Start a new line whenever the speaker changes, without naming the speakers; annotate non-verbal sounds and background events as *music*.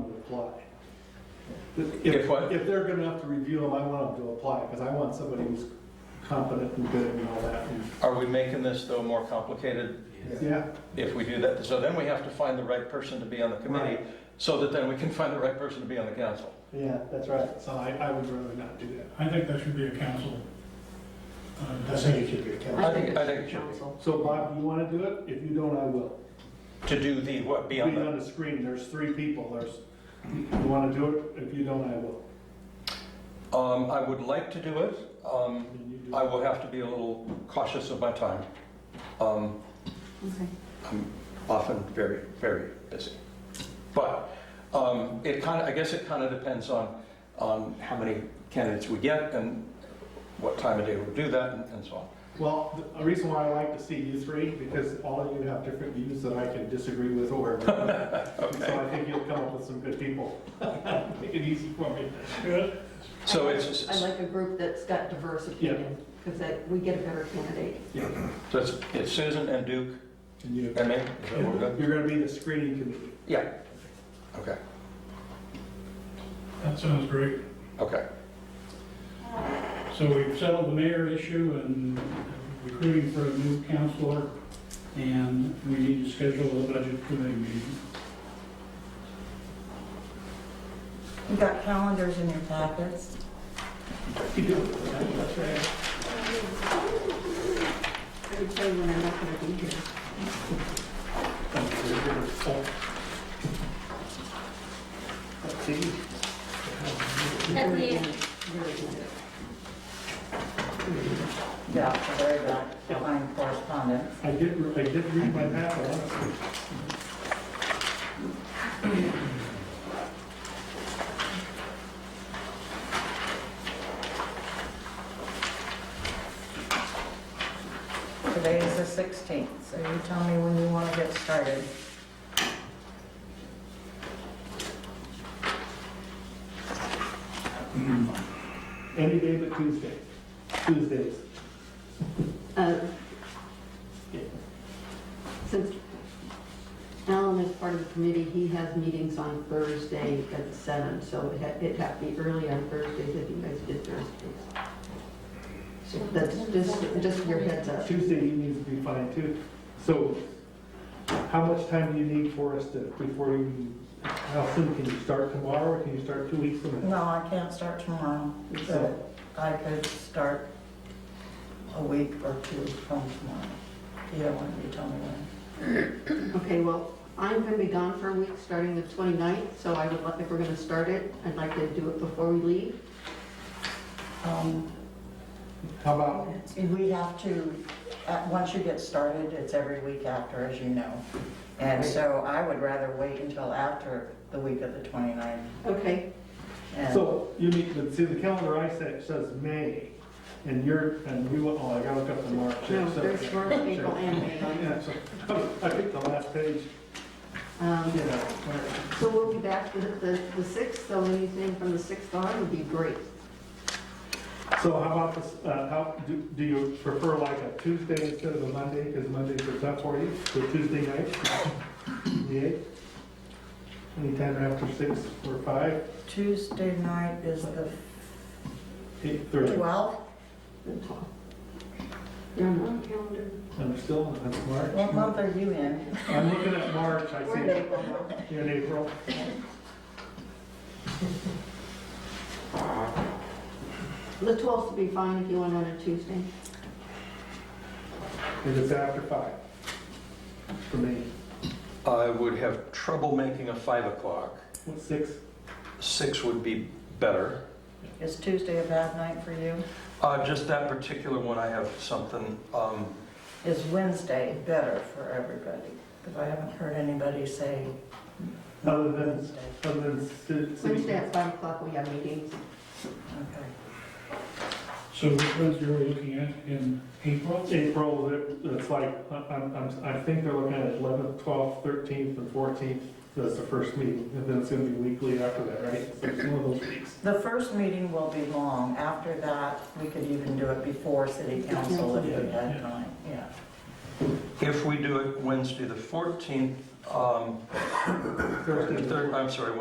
apply.
If what?
If they're good enough to review them, I want them to apply, because I want somebody who's competent and good and all that. and-
Are we making this, though, more complicated
Yeah,
if we do that? So then we have to find the right person to be on the committee, so that then we can find the right person to be on the council.
yeah, that's right. So I, I would rather not do that.
I think that should be a council. uh,
I think it should be a council.
I think- I think it should be.
Council.
So Bob, you want to do it? If you don't, I will.
To do the, what, be on
Being
the,
on the screen, there's three people, there's, you want to do it? If you don't, I will.
um, I would like to do it. Um,
And you do
I
it.
will have to be a little cautious of my time. Um,
Okay.
I'm often very, very busy. But um, it kind of, I guess it kind of depends on, on how many candidates we get and what time of day we do that and- and so on.
Well, th- a reason why I like to see you three, because all of you have different views that I can disagree with or. agree with. And So I think you'll come up with some good people. *laughs* Make it easy for me.
So
I like-
it's,
I like a group that's got diverse
Yeah.
opinion, because that, we get a better candidate.
so it's it's Susan and Duke
And you,
and me. Is that what we're doing?
you're gonna be the screening committee.
Yeah. Okay,
That sounds great.
okay.
So we've settled the mayor issue and recruiting for a new counselor, and we need to schedule a budget committee meeting.
You got calendars in your packets?
I can tell you when I'm not gonna be here.
At the end.
Very good.
Yeah, very good. Behind correspondence.
I did, re- I did read my map, I honestly.
Today is the 16th, so you tell me when you want to get started.
Any day but Tuesday, Tuesdays.
Uh, Since Alan is part of the committee, he has meetings on Thursday at seven, so it had- it'd have to be early on Thursdays if you guys did Thursdays. So that's just, just your heads up.
Tuesday evenings would be fine too. So how much time do you need for us to, before you, how soon can you start tomorrow or can you start two weeks from now?
No, I can't start tomorrow, but I could start a week or two from tomorrow. Either one, you tell me when.
Okay, well, I'm going to be gone for a week, starting the 29th, so I would like, if we're going to start it, I'd like to do it before we leave.
Um,
How about,
We have to, uh, once you get started, it's every week after, as you know. And so I would rather wait until after the week of the 29th.
Okay,
and-
so you need, but see, the calendar I set says May and you're, and you, oh, I gotta look up the March.
no,
So-
there's March, April, and May.
Yeah, so, I picked the last page,
Um,
you know, where-
So we'll be back the, the the 6th, so anything from the 6th on would be great.
So how about this, uh, how, do, do you prefer like a Tuesday instead of a Monday, because Mondays are tough for you, so Tuesday night? The eighth? Anytime after six or five,
Tuesday night is the
eight thirty,
12th?
The 12th. You're not on calendar.
I'm still, that's
What
March.
month are you in?
I'm looking at March, I
We're in
see,
April now.
you're in April.
The 12th would be fine if you went on a Tuesday.
If it's after five, for me,
I would have trouble making a 5 o'clock.
what, six?
6 would be better.
Is Tuesday a bad night for you?
Uh, Just that particular one, I have something, um,
Is Wednesday better for everybody? Because I haven't heard anybody say
Other than,
Wednesday.
other than ci- city.
Wednesday at 5 o'clock, we have meetings.
Okay.
So which ones are we looking at in April?
April, it's like, I- I'm, I'm, I think they're looking at eleventh, twelfth, thirteenth, and fourteenth, that's the first meeting, and then it's gonna be weekly after that, right? So it's one of those weeks.
The first meeting will be long. After that, we could even do it before city council if we had time, yeah.
if we do it Wednesday the 14th, um,
Thursday.
thir- I'm sorry,